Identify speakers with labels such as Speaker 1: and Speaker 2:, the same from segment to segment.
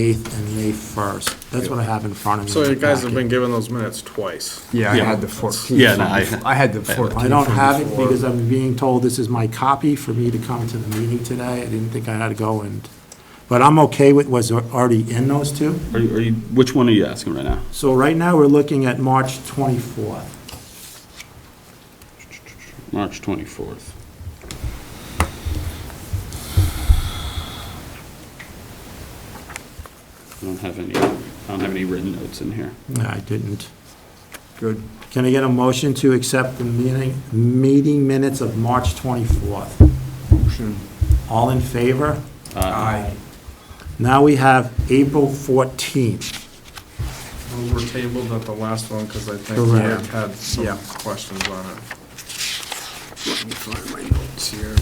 Speaker 1: 8th and May 1st. That's what I have in front of me.
Speaker 2: So
Speaker 1: in
Speaker 2: you
Speaker 1: the
Speaker 2: guys have
Speaker 1: packet.
Speaker 2: been given those minutes twice.
Speaker 3: Yeah, I
Speaker 4: Yeah.
Speaker 3: had the 14th.
Speaker 4: Yeah, no,
Speaker 3: from-
Speaker 4: I-
Speaker 3: I had the 14th.
Speaker 1: I don't
Speaker 3: from
Speaker 1: have it
Speaker 3: before.
Speaker 1: because I'm being told this is my copy for me to come to the meeting today. I didn't think I had to go and, but I'm okay with what's already in those two.
Speaker 4: Are you, are you, which one are you asking right now?
Speaker 1: So right now, we're looking at March 24th.
Speaker 4: March 24th. I don't have any, I don't have any written notes in here.
Speaker 1: No, I didn't.
Speaker 3: Good.
Speaker 1: Can I get a motion to accept the meeting, meeting minutes of March 24th?
Speaker 3: Motion.
Speaker 1: All in favor?
Speaker 2: Uh,
Speaker 3: Aye.
Speaker 1: Now we have April 14th.
Speaker 2: We were tabled at the last one because I think
Speaker 1: Correct.
Speaker 2: Rick had some questions on it.
Speaker 3: Let me find my notes here.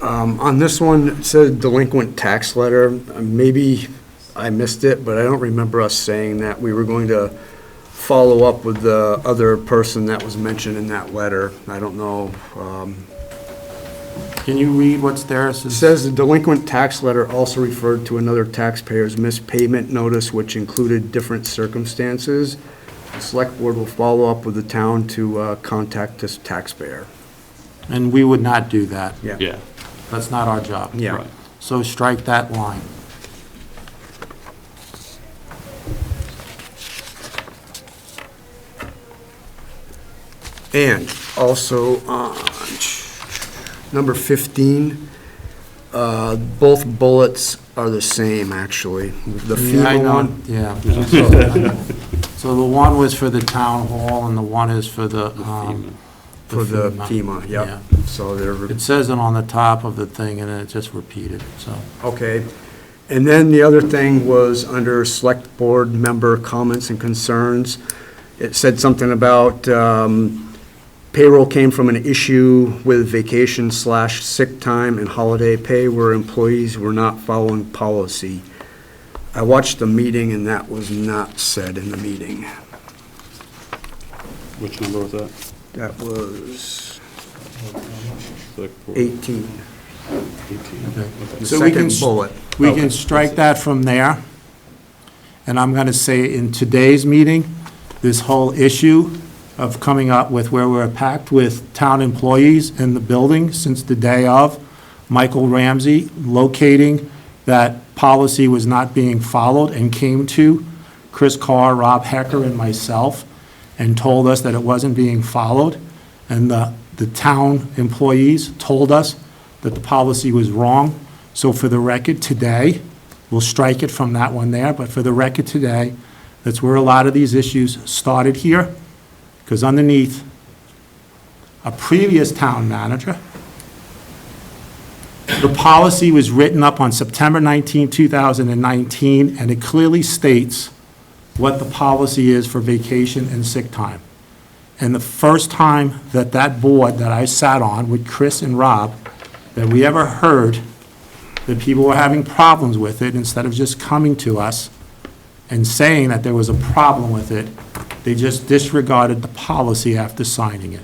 Speaker 3: Um, On this one, it said delinquent tax letter. Uh, Maybe I missed it, but I don't remember us saying that. We were going to follow up with the other person that was mentioned in that letter. I don't know. um,
Speaker 1: Can you read what's there?
Speaker 3: It
Speaker 1: since-
Speaker 3: says the delinquent tax letter also referred to another taxpayer's missed payment notice, which included different circumstances. The select board will follow up with the town to uh, contact this taxpayer.
Speaker 1: And we would not do that.
Speaker 4: Yeah.
Speaker 1: That's not our job.
Speaker 3: Yeah.
Speaker 4: right.
Speaker 1: So strike that line.
Speaker 3: And also on number 15, uh, both bullets are the same, actually. The
Speaker 1: Yeah, I
Speaker 3: FEMA
Speaker 1: know.
Speaker 3: one.
Speaker 1: Yeah. So the one was for the town hall and the one is for the, um.
Speaker 3: For the FEMA, yep. So they're.
Speaker 1: It says it on the top of the thing and then it just repeated, so.
Speaker 3: Okay. And then the other thing was under Select Board Member Comments and Concerns. It said something about um, payroll came from an issue with vacation slash sick time and holiday pay where employees were not following policy. I watched the meeting and that was not said in the meeting.
Speaker 4: Which number was that?
Speaker 3: That was
Speaker 4: Select board
Speaker 3: 18,
Speaker 4: 18.
Speaker 1: okay.
Speaker 3: the
Speaker 1: So we can
Speaker 3: second bullet.
Speaker 1: We can strike that from there. And I'm going to say in today's meeting, this whole issue of coming up with where we're packed with town employees in the building since the day of, Michael Ramsey locating that policy was not being followed and came to Chris Carr, Rob Hecker, and myself and told us that it wasn't being followed. And the, the town employees told us that the policy was wrong. So for the record today, we'll strike it from that one there, but for the record today, that's where a lot of these issues started here, because underneath, a previous town manager, the policy was written up on September 19, 2019, and it clearly states what the policy is for vacation and sick time. And the first time that that board that I sat on with Chris and Rob, that we ever heard that people were having problems with it, instead of just coming to us and saying that there was a problem with it, they just disregarded the policy after signing it.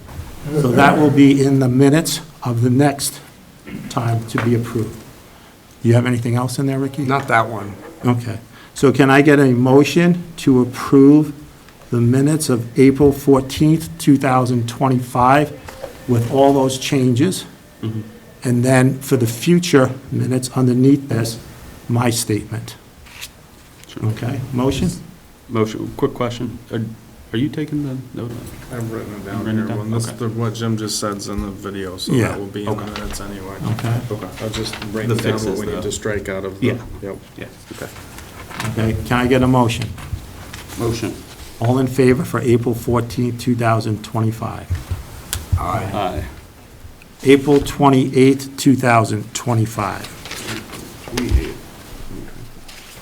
Speaker 1: So that will be in the minutes of the next time to be approved. Do you have anything else in there, Ricky?
Speaker 3: Not that one.
Speaker 1: Okay. So can I get a motion to approve the minutes of April 14th, 2025, with all those changes?
Speaker 3: Mm-hmm.
Speaker 1: And then for the future minutes underneath this, my statement.
Speaker 4: Sure.
Speaker 1: Okay, motion?
Speaker 4: Motion, quick question. Are are you taking the note? on-
Speaker 2: I've written it down
Speaker 4: Written it
Speaker 2: here.
Speaker 4: down?
Speaker 2: When this,
Speaker 4: Okay.
Speaker 2: the- what Jim just said's in the video, so
Speaker 1: Yeah.
Speaker 2: that will be in the
Speaker 4: Okay.
Speaker 2: minutes anyway.
Speaker 1: Okay.
Speaker 4: Okay.
Speaker 2: I'll just write
Speaker 4: The
Speaker 2: down what
Speaker 4: fixes,
Speaker 2: we
Speaker 4: though.
Speaker 2: need to strike out of the.
Speaker 4: Yeah.
Speaker 2: Yep.
Speaker 4: Yeah, okay.
Speaker 1: Okay, can I get a motion?
Speaker 4: Motion.
Speaker 1: All in favor for April 14th, 2025?
Speaker 4: Aye.
Speaker 1: April 28th, 2025.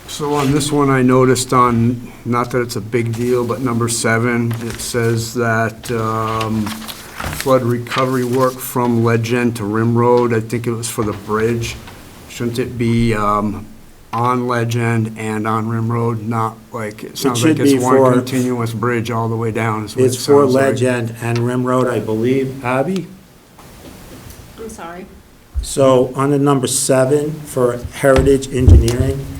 Speaker 3: So on this one, I noticed on, not that it's a big deal, but number seven, it says that um, flood recovery work from Legend to Rim Road, I think it was for the bridge. Shouldn't it be um, on Legend and on Rim Road, not like, it sounds like
Speaker 1: should be
Speaker 3: it's one
Speaker 1: for-
Speaker 3: continuous bridge all the way down, is what it
Speaker 1: It's for
Speaker 3: sounds like.
Speaker 1: Legend and Rim Road, I believe. Abby?
Speaker 5: I'm sorry.
Speaker 1: So on the number seven for Heritage Engineering,